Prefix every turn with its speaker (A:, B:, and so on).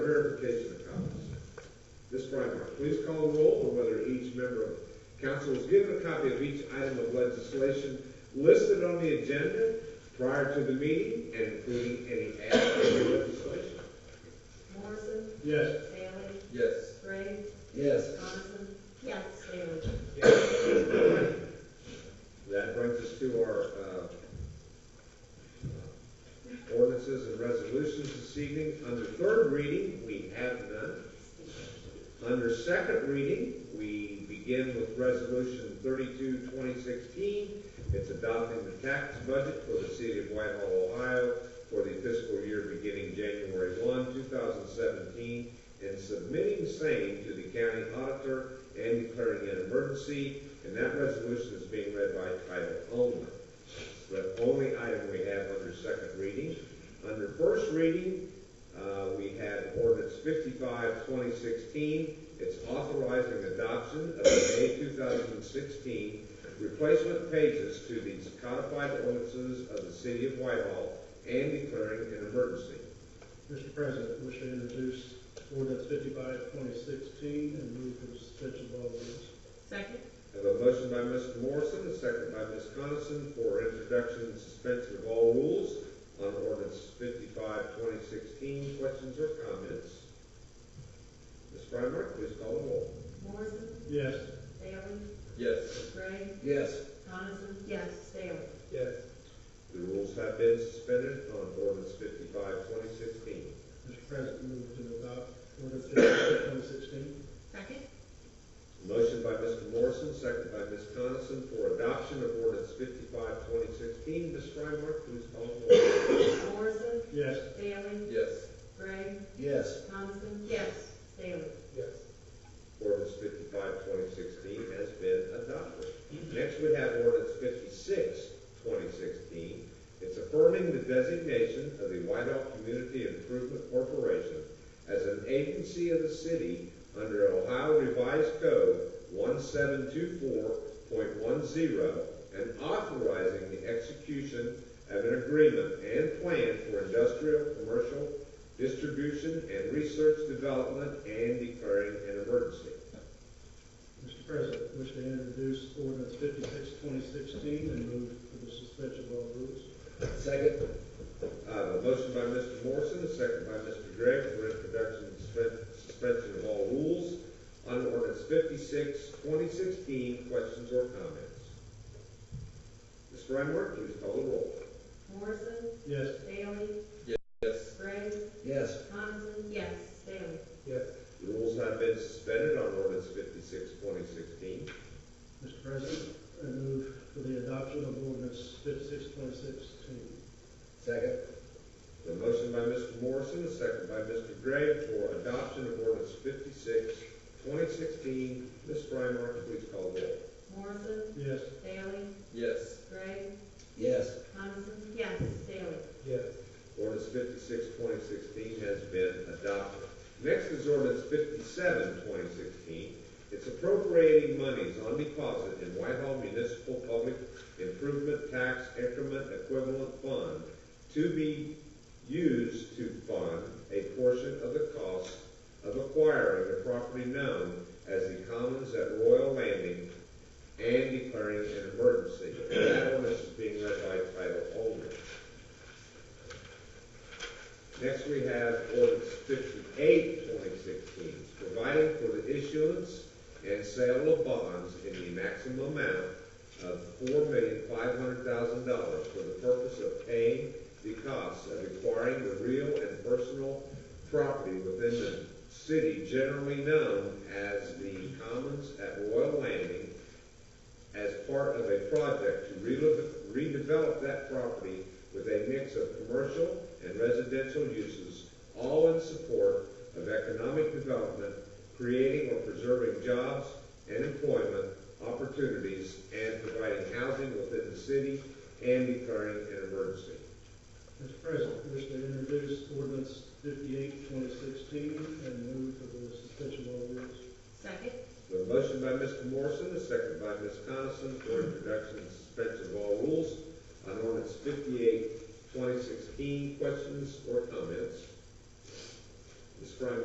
A: Verification of comments. Ms. Frymark, please call the roll on whether each member of council was given a copy of each item of legislation listed on the agenda prior to the meeting and including any added legislation.
B: Morrison,
C: Yes.
B: Bailey,
D: Yes.
B: Gray,
D: Yes.
B: Coniston. Yes. Bailey.
A: That brings us to our uh, ordinances and resolutions this evening. Under third reading, we have none. Under second reading, we begin with Resolution 32, 2016. It's adopting the tax budget for the city of Whitehall, Ohio for the fiscal year beginning January 1, 2017, and submitting same to the county auditor and declaring an emergency. And that resolution is being read by title only. It's the only item we have under second reading. Under first reading, uh, we had ordinance 55, 2016. It's authorizing adoption of the May 2016 replacement pages to these codified ordinances of the city of Whitehall and declaring an emergency.
C: Mr. President, wish to introduce ordinance 55-2016 and move for the suspension of all rules.
B: Second.
A: I have a motion by Mr. Morrison, a second by Ms. Coniston for introduction and suspension of all rules on ordinance 55, 2016. Questions or comments? Ms. Frymark, please call the roll.
B: Morrison,
C: Yes.
B: Bailey,
D: Yes.
B: Gray,
D: Yes.
B: Coniston. Yes. Bailey.
D: Yes.
A: The rules have been suspended on ordinance 55, 2016.
C: Mr. President, move to adopt ordinance 55-2016.
B: Second.
A: Motion by Mr. Morrison, second by Ms. Coniston for adoption of ordinance 55, 2016. Ms. Frymark, please call the roll.
B: Morrison,
C: Yes.
B: Bailey,
D: Yes.
B: Gray,
D: Yes.
B: Coniston. Yes. Bailey.
D: Yes.
A: Ordinance 55, 2016 has been adopted. Next, we have ordinance 56, 2016. It's affirming the designation of the Whitehall Community Improvement Corporation as an agency of the city under Ohio Revised Code 1724.10 and authorizing the execution of an agreement and plan for industrial, commercial, distribution, and research development, and declaring an emergency.
C: Mr. President, wish to introduce ordinance 56-2016 and move for the suspension of all rules.
D: Second.
A: I have a motion by Mr. Morrison, a second by Mr. Gregg for introduction and suspen- suspension of all rules on ordinance 56, 2016. Questions or comments? Ms. Frymark, please call the roll.
B: Morrison,
C: Yes.
B: Bailey,
D: Yes.
B: Gray,
D: Yes.
B: Coniston. Yes. Bailey.
D: Yes.
A: The Rules have been suspended on ordinance 56, 2016.
C: Mr. President, I move for the adoption of ordinance 56-2016.
D: Second.
A: The motion by Mr. Morrison, a second by Mr. Gregg for adoption of ordinance 56, 2016. Ms. Frymark, please call the roll.
B: Morrison,
C: Yes.
B: Bailey,
D: Yes.
B: Gray,
D: Yes.
B: Coniston. Yes. Bailey.
D: Yes.
A: Ordinance 56, 2016 has been adopted. Next is ordinance 57, 2016. It's appropriating monies on deposit in Whitehall Municipal Public Improvement Tax Increment Equivalent Fund to be used to fund a portion of the cost of acquiring the property known as the Commons at Royal Landing and declaring an emergency. That ordinance is being read by title only. Next, we have ordinance 58, 2016, providing for the issuance and sale of bonds in the maximum amount of $4,500,000 for the purpose of paying the costs of acquiring the real and personal property within the city generally known as the Commons at Royal Landing as part of a project to relo- redevelop that property with a mix of commercial and residential uses, all in support of economic development, creating or preserving jobs and employment opportunities, and providing housing within the city and declaring an emergency.
C: Mr. President, wish to introduce ordinance 58-2016 and move for the suspension of all rules.
B: Second.
A: The motion by Mr. Morrison, a second by Ms. Coniston for introduction and suspension of all rules on ordinance 58, 2016. Questions or comments? Ms. Frymo